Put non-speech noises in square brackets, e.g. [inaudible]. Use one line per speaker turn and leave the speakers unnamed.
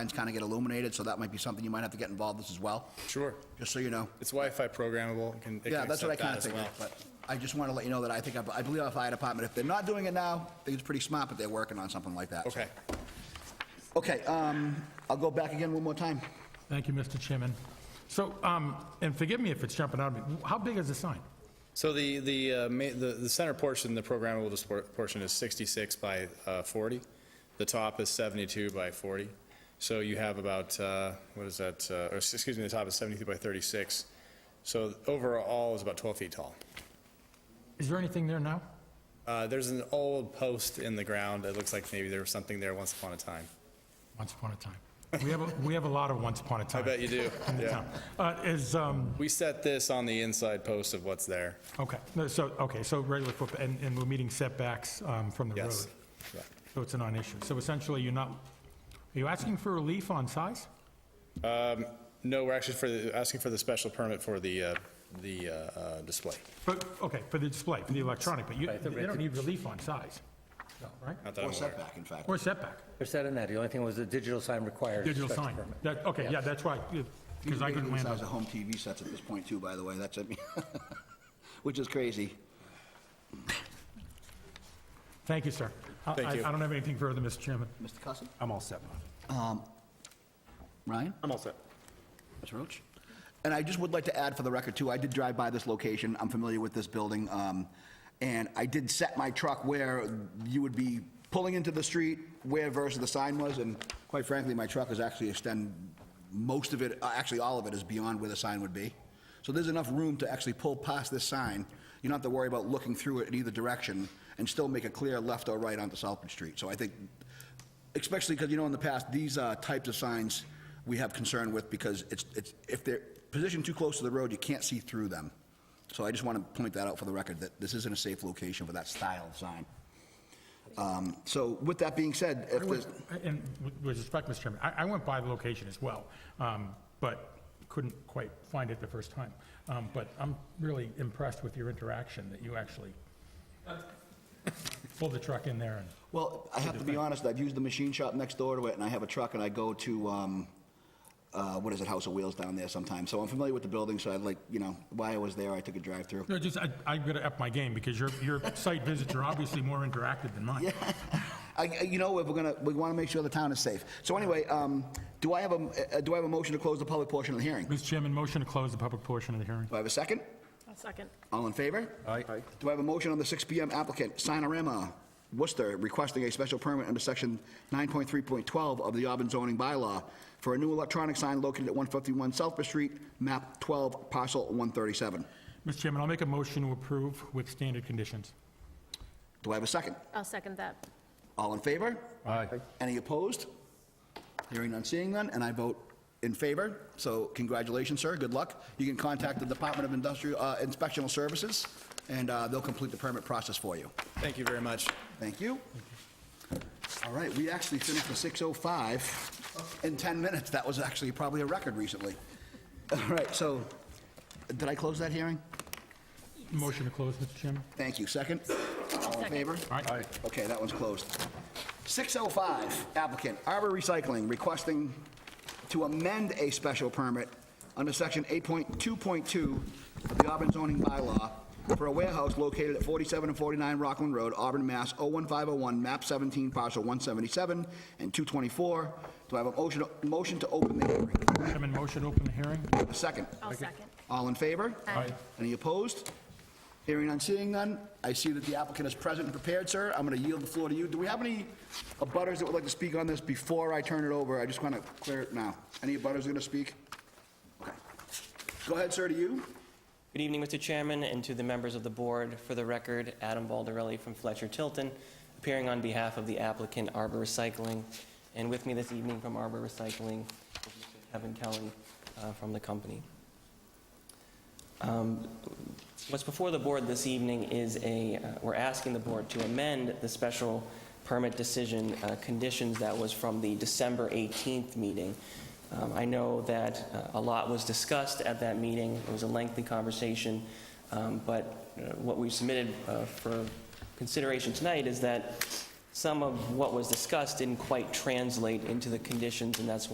lines kind of get illuminated, so that might be something you might have to get involved with as well,
Sure.
just so you know.
It's Wi-Fi programmable. It can, it
Yeah,
can
that's what I
accept
kind of
that as
figured,
well.
but I just want to let you know that I think, I I believe our fire department, if they're not doing it now, I think it's pretty smart, but they're working on something like that. so.
Okay.
Okay, um, I'll go back again one more time.
Thank you, Mr. Chairman. So, um, and forgive me if it's jumping out at me, how big is the sign?
So the, the, uh, ma- the the center portion, the programmable dispor- portion is 66 by uh, 40. The top is 72 by 40. So you have about, uh, what is that, uh, or s- excuse me, the top is 72 by 36. So overall is about 12 feet tall.
Is there anything there now?
Uh, There's an old post in the ground. It looks like maybe there was something there once upon a time.
Once upon a time. We have, a- we have a lot of once upon a time.
I bet you do.
in the
Yeah.
town. Uh, is, um,
We set this on the inside post of what's there.
okay, no, so, okay, so regular foot, and, and we're meeting setbacks, um, from the road.
Yes. Correct.
So it's a non-issue. So essentially, you're not, are you asking for relief on size?
No, we're actually for, the- asking for the special permit for the, uh, the uh, uh, display.
But, okay, for the display, for the electronic, but you, they don't need relief on size, right?
Not that
Or
I'm aware of.
setback, in fact.
Or setback,
They're set in that. The only thing was the digital sign required.
digital
special
sign.
permit.
That, okay, yeah, that's right, because I couldn't land
Size
on
of home TV sets at this point too, by the way, that's, it. [laughs] which is crazy.
Thank you, sir. I-
Thank
I-
you.
I don't have anything further, Mr. Chairman.
Mr. Cussin?
I'm all set.
Ryan?
I'm all set.
Mr. Roach? And I just would like to add for the record, too, I did drive by this location, I'm familiar with this building, um, and I did set my truck where you would be pulling into the street, where versus the sign was, and quite frankly, my truck is actually extend, most of it, uh, actually all of it is beyond where the sign would be. So there's enough room to actually pull past this sign, you don't have to worry about looking through it in either direction, and still make a clear left or right onto Southbridge Street. So I think especially because, you know, in the past, these uh, types of signs we have concern with because it's, it's, if they're positioned too close to the road, you can't see through them. So I just want to point that out for the record, that this isn't a safe location for that style of sign. Um, So with that being said, if
I
there's,
went- And with- with respect, Mr. Chairman, I I went by the location as well, um, but couldn't quite find it the first time. Um, But I'm really impressed with your interaction, that you actually pulled the truck in there and,
well, I have to be honest, I've used the machine shop next door to it, and I have a truck, and I go to, um, uh, what is it, House of Wheels down there sometimes. So I'm familiar with the building, so I'd like, you know, while I was there, I took a drive-through.
no, just, I- I'm going to up my game, because your your site visits are obviously more interactive than mine.
I, I- you know, if we're gonna, we wanna make sure the town is safe. So anyway, um, do I have a, uh, do I have a motion to close the public portion of the hearing? Do
Mr. Chairman, motion to close the public portion of the hearing.
I have a second?
I'll second.
All in favor? Aye. Do I have a motion on the 6 PM applicant, Sinorama Worcester, requesting a special permit under section 9.3.12 of the Auburn zoning bylaw for a new electronic sign located at 151 Southbridge Street, map 12, parcel 137?
Mr. Chairman, I'll make a motion to approve with standard conditions.
Do I have a second?
I'll second that.
All in favor? Aye. Any opposed? Hearing none, seeing none, and I vote in favor. So congratulations, sir, good luck. You can contact the Department of Industrial, uh, Inspectional Services, and uh, they'll complete the permit process for you.
Thank you very much.
Thank you. All right, we actually finished the 6:05 in 10 minutes. That was actually probably a record recently. All right, so, did I close that hearing?
Motion to close, Mr. Chairman.
Thank you. Second? All in
Second.
favor?
All right.
Okay, that one's closed. 605 applicant Arbor Recycling requesting to amend a special permit under section 8.2.2 of the Auburn zoning bylaw for a warehouse located at 47 and 49 Rockland Road, Auburn, Mass. 01501, map 17, parcel 177 and 224. Do I have a motion, motion to open the hearing?
Chairman, motion to open the hearing.
A second.
I'll second.
All in favor?
Aye.
Any opposed? Hearing none, seeing none. I see that the applicant is present and prepared, sir. I'm going to yield the floor to you. Do we have any abutters that would like to speak on this before I turn it over? I just want to clear it now. Any abutters going to speak? Okay. Go ahead, sir, to you.
Good evening, Mr. Chairman, and to the members of the board. For the record, Adam Baldarelli from Fletcher Tilton, appearing on behalf of the applicant Arbor Recycling. And with me this evening from Arbor Recycling is Mr. Kevin Kelly uh, from the company. What's before the board this evening is a, uh, we're asking the board to amend the special permit decision uh, conditions that was from the December 18th meeting. Um, I know that uh, a lot was discussed at that meeting. It was a lengthy conversation, um, but uh, what we submitted uh, for consideration tonight is that some of what was discussed didn't quite translate into the conditions, and that's